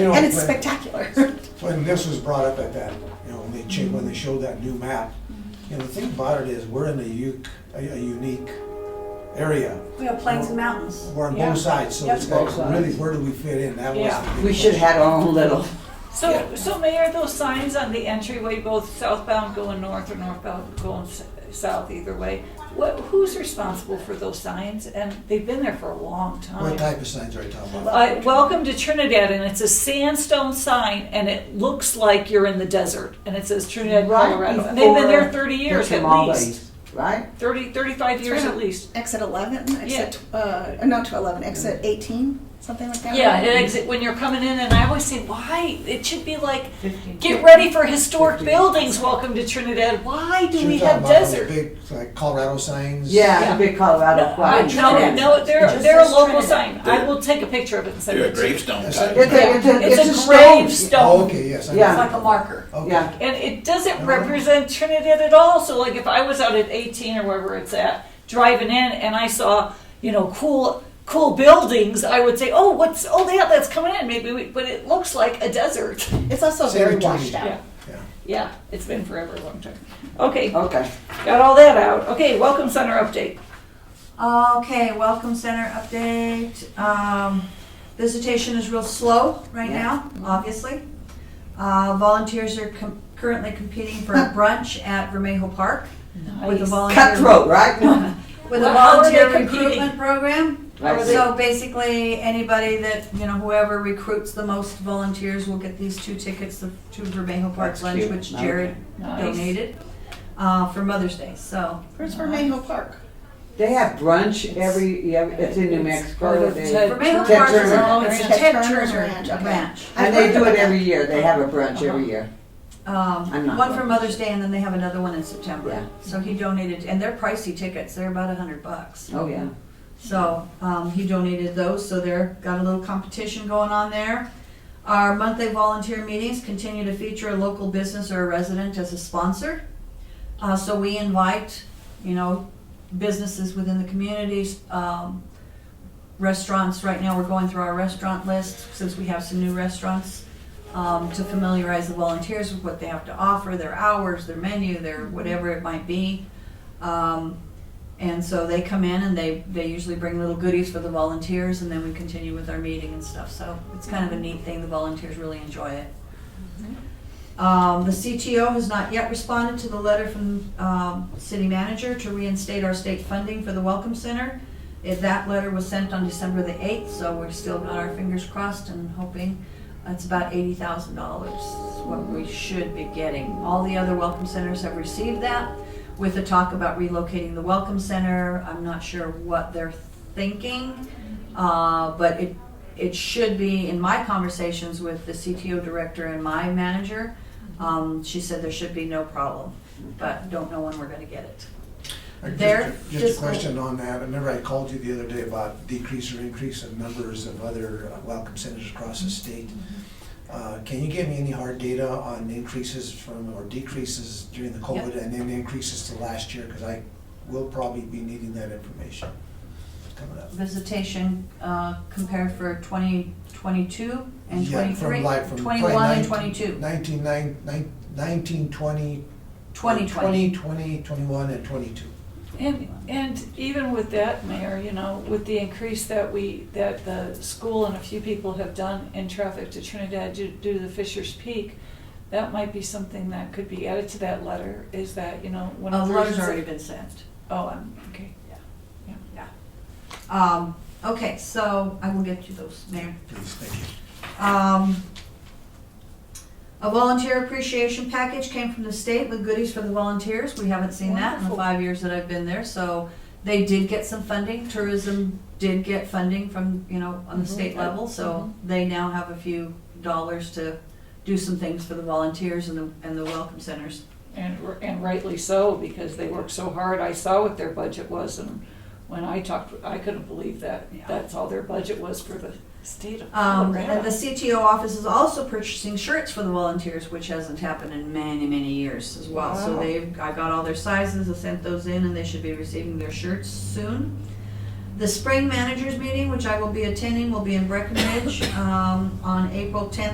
You know, And it's when- spectacular. When this was brought up at that, you know, when they cha- when they showed that new map, you know, the thing about it is, we're in a unique, a a unique area. We have plains and mountains. We're on Yeah. both sides, so Yep. it's like, Both sides. really, where do we fit in? That was. Yeah. the big We should question. have had our own little, So, so Mayor, those signs on the entryway, both southbound going north or northbound going s- south, either way, what, who's responsible for those signs? And they've been there for a long What time. type of signs are you talking about? Uh, welcome to Trinidad, and it's a sandstone sign, and it looks like you're in the desert, and it says Trinidad, Right Colorado. And they've been there before thirty the years at least, tamales, right? 30, 35 years at least. Exit 11, Yeah. exit, tw- uh, not to 11, exit 18, something like that. Yeah, it exit when you're coming in, and I always say, why? It should be like, get ready for historic buildings. Welcome to Trinidad. Why do You're we talking have about those desert? Big, like Colorado signs? Yeah, the big Colorado I- flag. No, Trinidad. no, It they're, just they're a says local sign. Trinidad. I will take a picture of it and send You're a it to you. gravestone Yes, type. I- It's a, it's a, it's a It's a stone. Oh, gravestone. okay, yes. I Yeah. It's know. like a marker. Okay. Yeah. And it doesn't Mhm. represent Trinidad at all. So like if I was out at 18 or wherever it's at, driving in and I saw, you know, cool, cool buildings, I would say, oh, what's, oh, yeah, that's coming in. Maybe we, but it looks like a desert. It's also Same very with Tony. washed Yeah. out. Yeah. Yeah, it's been forever, a long time. Okay, Okay. got all that out. Okay, welcome center update. Okay, welcome center update. Um, visitation is real slow right Yeah. now, obviously. Uh, volunteers are com- currently competing for a brunch at Vermejo Park with a Nice. volunteer. Cutthroat, Oh, right? With a Well, how are they volunteer competing? recruitment program. How are they- So basically, anybody that, you know, whoever recruits the most volunteers will get these two tickets to to Vermejo Park That's lunch, cute. which Okay. Jared Nice. donated, uh, for Mother's Day, so. Where's Vermejo Park? They have brunch every, yeah, it's in New It's Mexico. part of They- Ted- Vermejo Ted Park is Turner. all, it's It's Ted Ted Turner's Turner ranch, okay. Ranch. And I've they do heard it about every year. They have a brunch every year. I'm Um, not one for going. Mother's Day and then they have another one in September. Yeah. So he donated, and they're pricey tickets, they're about a hundred bucks. Oh, yeah. So, um, he donated those, so they're, got a little competition going on there. Our monthly volunteer meetings continue to feature a local business or a resident as a sponsor. Uh, so we invite, you know, businesses within the communities, um, restaurants, right now we're going through our restaurant list, since we have some new restaurants, um, to familiarize the volunteers with what they have to offer, their hours, their menu, their whatever it might be. Um, and so they come in and they, they usually bring little goodies for the volunteers and then we continue with our meeting and stuff. So it's kind of a neat thing. The volunteers really enjoy it. Um, the CTO has not yet responded to the letter from, um, city manager to reinstate our state funding for the Welcome Center. If that letter was sent on December the eighth, so we've still got our fingers crossed and hoping. It's about eighty thousand dollars, what we should be getting. All the other Welcome Centers have received that with the talk about relocating the Welcome Center. I'm not sure what they're thinking, uh, but it, it should be, in my conversations with the CTO director and my manager, um, she said there should be no problem, but don't know when we're gonna get it. Uh, just- There, Just just- a question on that. I Remember I called you the other day about decrease or increase of numbers of other uh, welcome centers across the state. Uh, Can you give me any hard data on increases from, or decreases during the COVID and then increases to last year? Because I will probably be needing that information coming up. Visitation, uh, compared for twenty twenty-two and Yeah, from twenty-three, like from twenty-one and probably twenty-two, 19, nine- nine- 19, 20. twenty 20, twenty. 20, 21, and 22. And, and even with that, Mayor, you know, with the increase that we, that the school and a few people have done in traffic to Trinidad due due to the Fisher's Peak, that might be something that could be added to that letter, is that, you know, when. Uh, a the letter's person- already been sent. Oh, I'm, okay. Um, okay, so I will get you those, Mayor. Please, thank you. Um, a volunteer appreciation package came from the state with goodies for the volunteers. We haven't seen that in the Wonderful. five years that I've been there, so they did get some funding. Tourism did get funding from, you know, on the Mhm. state level, so they now have a few dollars to do some things for the volunteers and the, and the welcome centers. And, r- and rightly so, because they worked so hard. I saw what their budget was, and when I talked, I couldn't believe that. Yeah. That's all their budget was for the state of Um, and Colorado. the CTO office is also purchasing shirts for the volunteers, which hasn't happened in many, many years as well. So Wow. they've, I got all their sizes, I sent those in, and they should be receiving their shirts soon. The spring managers meeting, which I will be attending, will be in Breckenridge, um, on April tenth